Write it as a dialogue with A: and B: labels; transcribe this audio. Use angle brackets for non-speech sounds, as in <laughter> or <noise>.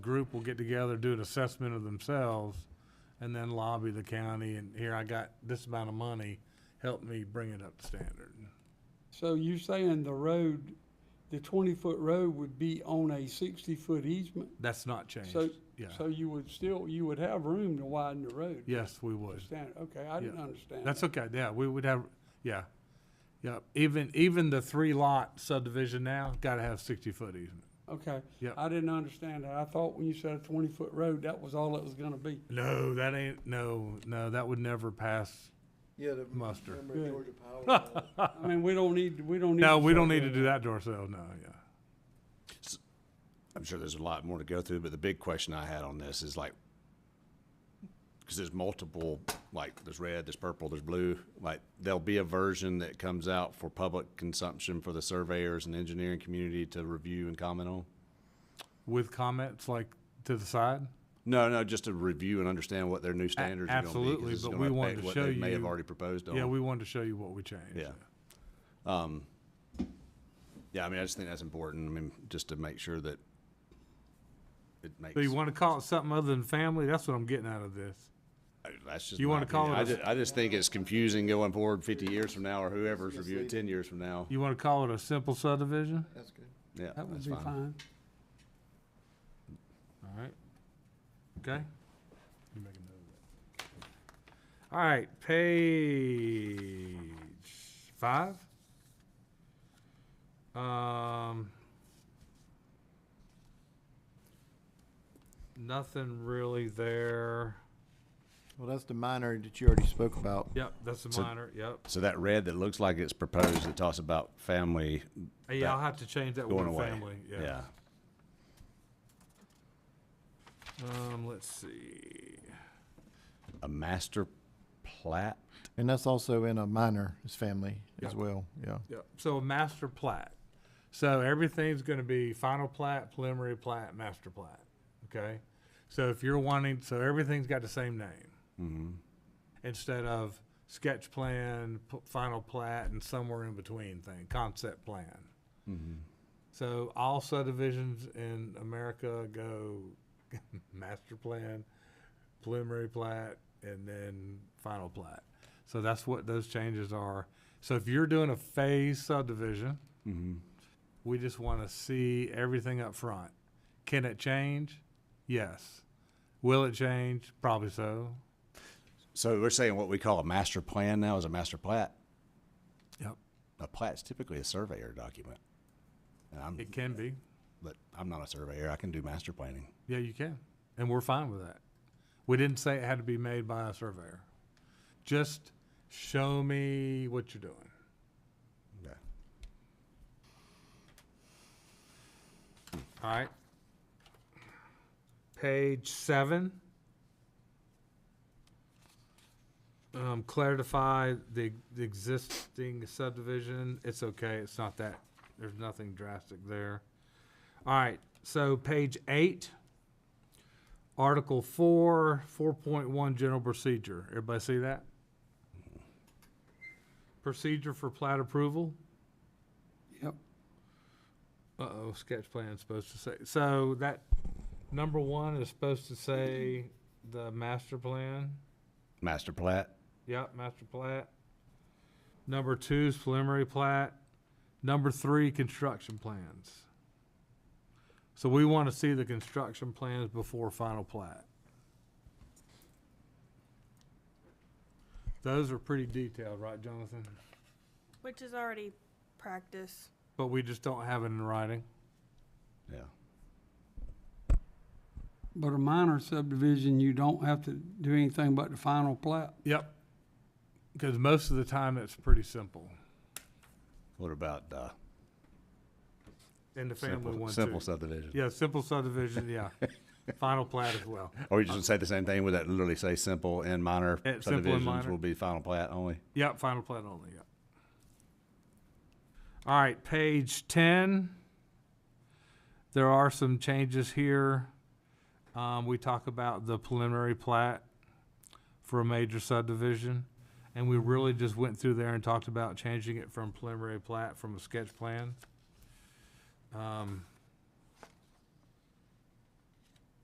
A: group will get together, do an assessment of themselves, and then lobby the county, and here I got this amount of money, help me bring it up to standard.
B: So you're saying the road, the twenty-foot road would be on a sixty-foot easement?
A: That's not changed,
B: So,
A: yeah.
B: so you would still, you would have room to widen the road?
A: Yes, we would.
B: Understand, okay, I didn't
A: Yeah.
B: understand.
A: That's
B: that.
A: okay, yeah, we would have, yeah. Yeah, even, even the three lot subdivision now, gotta have sixty foot easement.
B: Okay.
A: Yeah.
B: I didn't understand that. I thought when you said a twenty-foot road, that was all it was gonna be.
A: No, that ain't, no, no, that would never pass.
C: Yeah, the.
A: Mustard.
C: remember
B: Good.
C: Georgia Power. uh,
B: I mean, we don't need, we don't need.
A: No, we don't
B: say
A: need to do that to ourselves, no, yeah.
D: I'm sure there's a lot more to go through, but the big question I had on this is like, because there's multiple, like, there's red, there's purple, there's blue, like, there'll be a version that comes out for public consumption for the surveyors and engineering community to review and comment on?
A: With comments like to the side?
D: No, no, just to review and understand what their new standards are gonna be. 'cause
A: absolutely,
D: it's
A: but
D: gonna
A: we wanted
D: affect
A: to
D: what
A: show
D: they May have
A: you-
D: already proposed on.
A: Yeah, we wanted to show you what we changed.
D: Yeah. Um, yeah, I mean, I just think that's important, I mean, just to make sure that it makes.
A: So you wanna call it something other than family? That's what I'm getting out of this.
D: I- That's just.
A: You
D: my
A: wanna call
D: opinion.
A: it
D: I
A: a-
D: just, I just think it's confusing going forward fifty years from now, or whoever's reviewing ten years from now.
A: You wanna call it a simple subdivision?
C: That's good.
D: Yeah,
B: That would
D: that's
B: be
D: fine.
B: fine.
A: All right. Okay? You make a note of that. All right, page five. Um, nothing really there.
C: Well, that's the minor that you already spoke about.
A: Yep, that's a
D: So-
A: minor, yep.
D: So that red that looks like it's proposed, that talks about family
A: Yeah, I'll have to change that
D: going
A: one
D: away.
A: family, yeah.
D: Yeah,
A: Um, let's see.
D: a master plat,
C: And that's also in a minor, is family as
A: Yeah.
C: well, yeah.
A: Yep. So a master plat. So everything's gonna be final plat, preliminary plat, master plat, okay? So if you're wanting, so everything's got the same name.
D: Mm-hmm,
A: Instead of sketch plan, p- final plat, and somewhere in between thing, concept plan. So all subdivisions in America go <laughs> master plan, preliminary plat, and then final plat. So that's what those changes are. So if you're doing a phase subdivision,
D: mm-hmm.
A: we just want to see everything up front. Can it change? Yes. Will it change? Probably so.
D: so we're saying what we call a master plan now is a master plat?
A: Yep.
D: A plat's typically a surveyor document. And I'm,
A: It can be.
D: but I'm not a surveyor, I can do master planning.
A: Yeah, you can. And we're fine with that. We didn't say it had to be made by a surveyor. Just show me what you're doing.
D: Yeah.
A: All right. Page seven. Um, clarify the, the existing subdivision. It's okay. It's not that, there's nothing drastic there. All right, so page eight. Article four, four point one, general procedure. Everybody see that? Procedure for plat approval?
B: Yep.
A: Uh-oh, sketch plan's supposed to say, so that number one is supposed to say the master plan,
D: Master plat,
A: yep, master plat. Number two is preliminary plat, number three, construction plans. So we want to see the construction plans before final plat. Those are pretty detailed, right, Jonathan?
E: Which is already practice.
A: But we just don't have it in writing.
D: yeah.
B: But a minor subdivision, you don't have to do anything but the final plat.
A: Yep. Because most of the time, it's pretty simple.
D: What about, uh,
A: And the family
D: simple,
A: one
D: simple
A: too.
D: subdivision?
A: Yeah, simple subdivision, yeah. Final plat as well.
D: Or you just gonna say the same thing, would that literally say simple and minor
A: Yeah, simple and
D: subdivisions
A: minor.
D: will be final plat only?
A: Yep, final plat only, yeah. All right, page ten. There are some changes here. Um, we talk about the preliminary plat for a major subdivision. And we really just went through there and talked about changing it from preliminary plat from a sketch plan. Um,